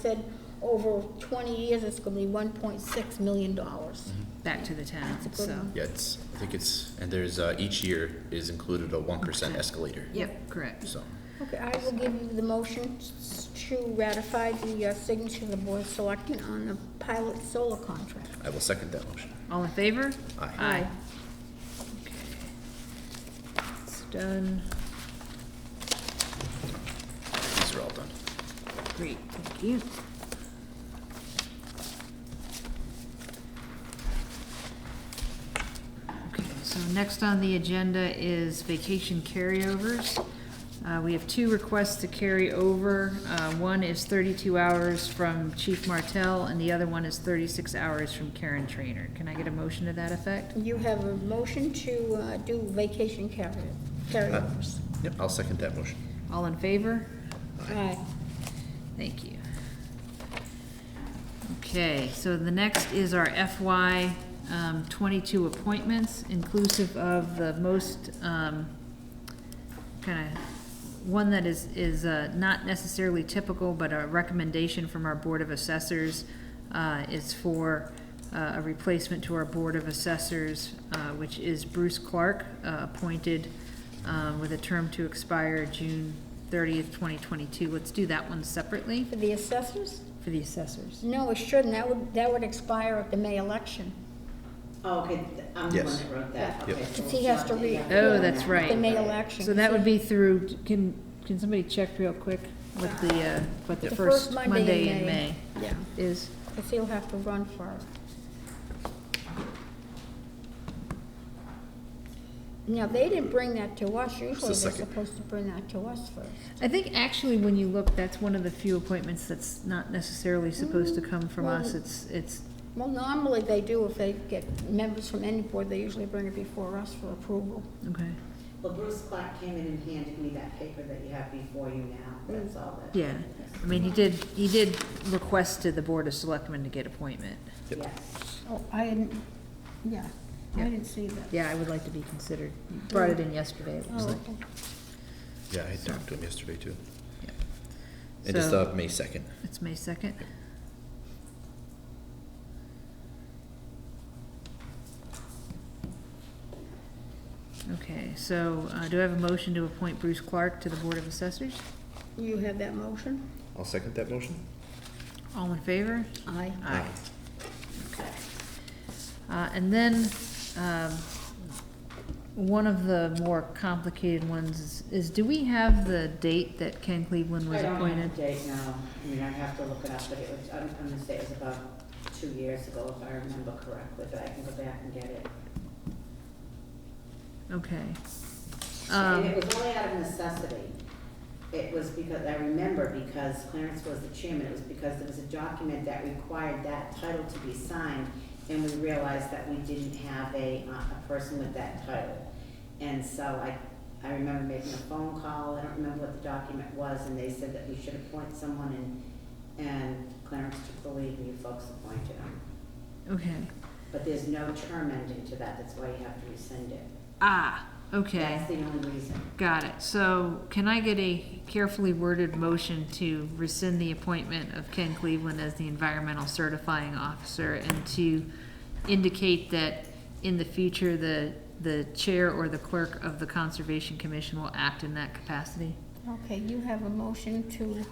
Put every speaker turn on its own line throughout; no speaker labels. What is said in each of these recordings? said over twenty years, it's gonna be one point six million dollars.
back to the town,
That's a good
so.
one.
Yeah, it's, I think it's, and there's, uh, each year is included a one percent escalator,
Yep, correct.
so.
Okay, I will give you the motion s- to ratify the uh, signature of the board of selectmen on the pilot solar contract.
I will second that motion.
All in favor?
Aye.
Okay. It's done.
These are all done.
Great, thank you. Okay, so next on the agenda is vacation carryovers. Uh, we have two requests to carry over. Uh, one is thirty-two hours from Chief Martell, and the other one is thirty-six hours from Karen Trainer. Can I get a motion to that effect?
You have a motion to uh, do vacation carry- carryovers.
Uh, Yep, I'll second that motion.
All in favor?
Uh, Aye.
Thank you. Okay, so the next is our FY um, twenty-two appointments, inclusive of the most, um, kind of, one that is, is uh, not necessarily typical, but a recommendation from our Board of Assessors uh, is for uh, a replacement to our Board of Assessors, uh, which is Bruce Clark, uh, appointed um, with a term to expire June thirtieth, twenty twenty-two. Let's do that one separately
For the assessors?
for the assessors.
No, it shouldn't. That would, that would expire at the May election.
Oh, okay, th- I'm the one
Yes.
that wrote that,
Yep.
okay. so
He
it's
has
not
to
the-
read.
yeah.
Oh, that's right.
The May election.
So that would be through, can, can somebody check real quick what the, uh, what the first Monday in May
Yeah,
is?
because he'll have to run for it. Now, they didn't bring that to us. Usually they're
second.
supposed to bring that to us first.
I think actually, when you look, that's one of the few appointments that's not necessarily supposed to come from us. It's, it's,
Well, normally they do. If they get members from any board, they usually bring it before us for approval.
okay,
Well, Bruce Clark came in and handed me that paper that you have before you now, that's all that.
yeah. I mean, he did, he did request to the Board of Selectmen to get appointment.
Yep.
Yes,
Oh, I didn't, yeah, I
Yeah.
didn't see that.
Yeah, I would like to be considered. You Brought it in yesterday, it looks
Oh,
like.
okay.
Yeah, I talked to him yesterday too.
Yeah.
It is,
So-
uh, May second.
It's May second. Okay, so, uh, do I have a motion to appoint Bruce Clark to the Board of Assessors?
You have that motion?
I'll second that motion.
All in favor?
Aye.
Aye. Okay. Uh, and then, um, one of the more complicated ones is, is do we have the date that Ken Cleveland
I
was
don't
appointed?
have the date now, I mean, I have to look it up, but it was, I'm, I'm gonna say it was about two years ago, if I remember correctly, but I can go back and get it.
Okay. Um,
And it was only out of necessity. It was because, I remember because Clarence was the chairman, it was because there was a document that required that title to be signed, and we realized that we didn't have a, uh, a person with that title. And so I, I remember making a phone call, I don't remember what the document was, and they said that we should appoint someone, and, and Clarence took the lead, and you folks appointed him.
okay.
But there's no term ending to that, that's why you have to rescind it.
Ah, okay,
That's the only reason.
got it. So can I get a carefully worded motion to rescind the appointment of Ken Cleveland as the environmental certifying officer and to indicate that in the future, the, the chair or the clerk of the Conservation Commission will act in that capacity?
Okay, you have a motion to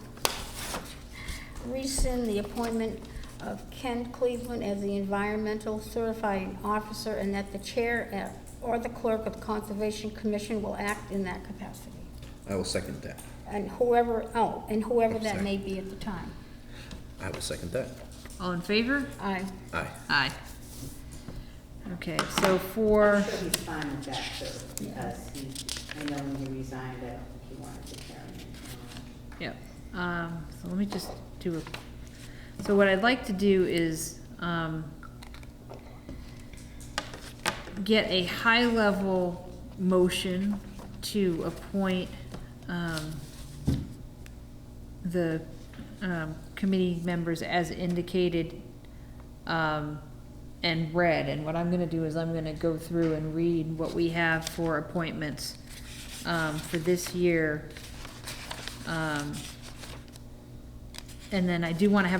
rescind the appointment of Ken Cleveland as the environmental certifying officer and that the chair uh, or the clerk of the Conservation Commission will act in that capacity.
I will second that.
And whoever, oh, and whoever that may be at the time.
I will second that.
All in favor?
Aye.
Aye.
Aye. Okay, so for,
I'm sure he's fine with that too, because he, I know when he resigned, I don't think he wanted to carry it. on.
Yep, um, so let me just do a, so what I'd like to do is, um, get a high-level motion to appoint, um, the, um, committee members as indicated, um, and read, and what I'm gonna do is I'm gonna go through and read what we have for appointments, um, for this year, um, And then I do want to have